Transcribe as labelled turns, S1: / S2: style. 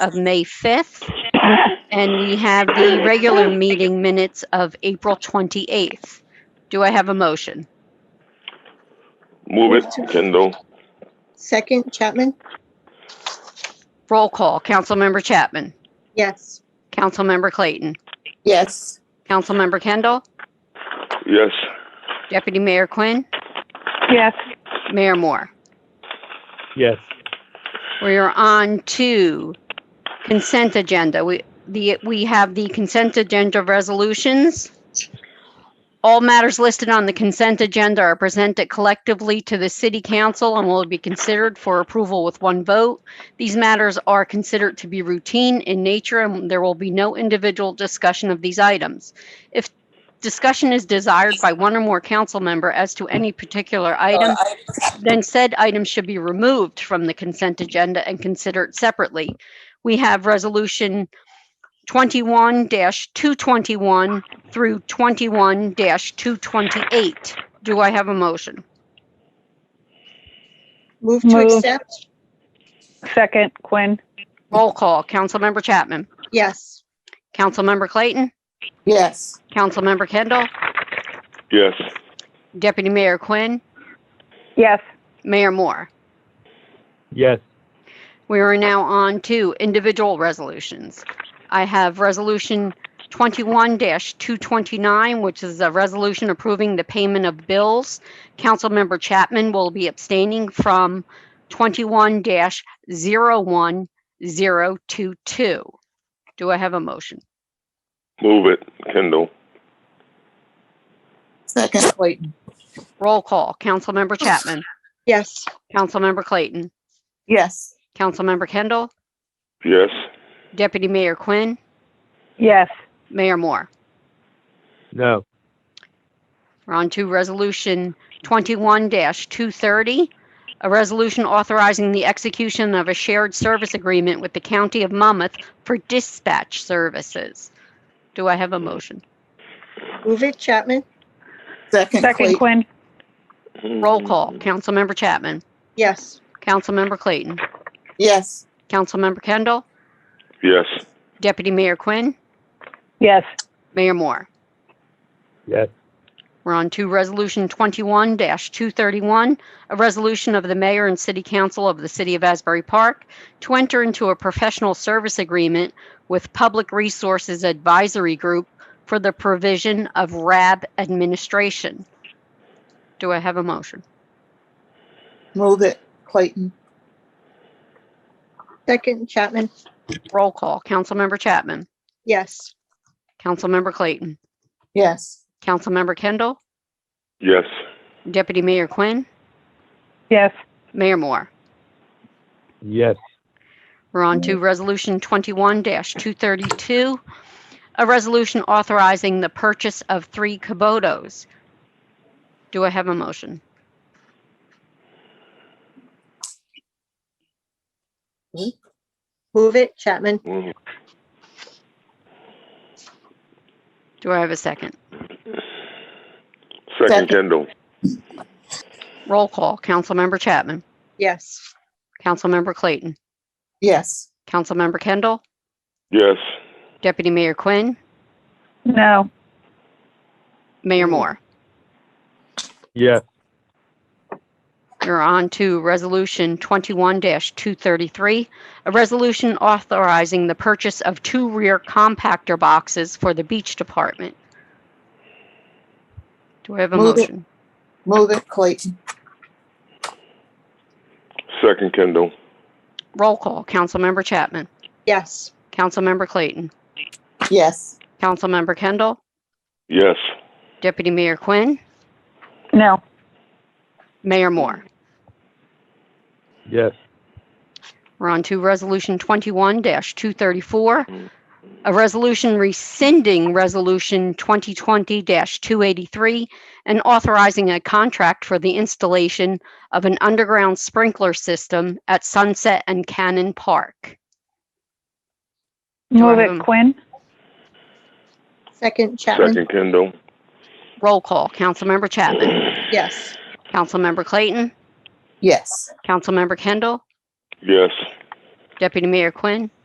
S1: of May 5th. And we have the regular meeting minutes of April 28th. Do I have a motion?
S2: Move it, Kendall.
S3: Second, Chapman?
S1: Roll call. Councilmember Chapman.
S3: Yes.
S1: Councilmember Clayton.
S3: Yes.
S1: Councilmember Kendall.
S2: Yes.
S1: Deputy Mayor Quinn.
S4: Yes.
S1: Mayor Moore.
S5: yes,
S1: We are on to consent agenda. We, the, we have the consent agenda resolutions. All matters listed on the consent agenda are presented collectively to the city council and will be considered for approval with one vote. These matters are considered to be routine in nature and there will be no individual discussion of these items. If discussion is desired by one or more council member as to any particular item, then said item should be removed from the consent agenda and considered separately. We have resolution twenty-one two twenty-one through twenty-one two twenty-eight. Do I have a motion?
S3: Move to
S4: Move.
S3: accept?
S4: Second, Quinn.
S1: Roll call. Councilmember Chapman.
S3: Yes.
S1: Councilmember Clayton.
S3: Yes.
S1: Councilmember Kendall.
S2: Yes.
S1: Deputy Mayor Quinn.
S4: Yes.
S1: Mayor Moore.
S5: yes,
S1: We are now on to individual resolutions. I have Resolution 21-229, which is a resolution approving the payment of bills. Councilmember Chapman will be abstaining from 21-01022. Do I have a motion?
S2: Move it, Kendall.
S3: Second, Clayton?
S1: Roll call. Councilmember Chapman.
S3: Yes.
S1: Councilmember Clayton.
S3: Yes.
S1: Councilmember Kendall.
S2: Yes.
S1: Deputy Mayor Quinn.
S4: Yes.
S1: Mayor Moore.
S5: no,
S1: We're on to Resolution 21-230, a resolution authorizing the execution of a shared service agreement with the County of Monmouth for dispatch services. Do I have a motion?
S3: Move it, Chapman? Second,
S4: Second, Quinn.
S1: Roll call. Councilmember Chapman.
S3: Yes.
S1: Councilmember Clayton.
S3: Yes.
S1: Councilmember Kendall.
S2: Yes.
S1: Deputy Mayor Quinn.
S4: Yes.
S1: Mayor Moore.
S5: yes,
S1: We're on to Resolution 21-231, a resolution of the mayor and city council of the city of Asbury Park to enter into a professional service agreement with Public Resources Advisory Group for the provision of RAB administration. Do I have a motion?
S3: Move it, Clayton? Second, Chapman?
S1: Roll call. Councilmember Chapman.
S3: Yes.
S1: Councilmember Clayton.
S3: Yes.
S1: Councilmember Kendall.
S2: Yes.
S1: Deputy Mayor Quinn.
S4: Yes.
S1: Mayor Moore.
S5: yes,
S1: We're on
S3: Mm-hmm.
S1: to Resolution 21-232, a resolution authorizing the purchase of three Kubotas. Do I have a motion?
S3: Move it, Chapman?
S2: Mm,
S1: Do I have a second?
S2: Second,
S3: Second.
S2: Kendall.
S1: Roll call. Councilmember Chapman.
S3: Yes.
S1: Councilmember Clayton.
S3: Yes.
S1: Councilmember Kendall.
S2: Yes.
S1: Deputy Mayor Quinn.
S4: No.
S1: Mayor
S3: Mm-hmm.
S1: Moore.
S5: yes,
S1: We're on to Resolution 21-233, a resolution authorizing the purchase of two rear compactor boxes for the Beach Department. Do I have a
S3: Move it.
S1: motion?
S3: Move it, Clayton?
S2: Second, Kendall.
S1: Roll call. Councilmember Chapman.
S3: Yes.
S1: Councilmember Clayton.
S3: Yes.
S1: Councilmember Kendall.
S2: Yes.
S1: Deputy Mayor Quinn.
S4: No.
S1: Mayor Moore.
S5: yes,
S1: We're on to Resolution 21-234, a resolution rescinding Resolution 2020-283 and authorizing a contract for the installation of an underground sprinkler system at Sunset and Cannon Park.
S4: Move
S1: Um,
S4: it, Quinn.
S3: Second, Chapman?
S2: Second, Kendall.
S1: Roll call. Councilmember Chapman.
S3: Yes.
S1: Councilmember Clayton.
S3: Yes.
S1: Councilmember Kendall.
S2: Yes.
S1: Deputy Mayor Quinn.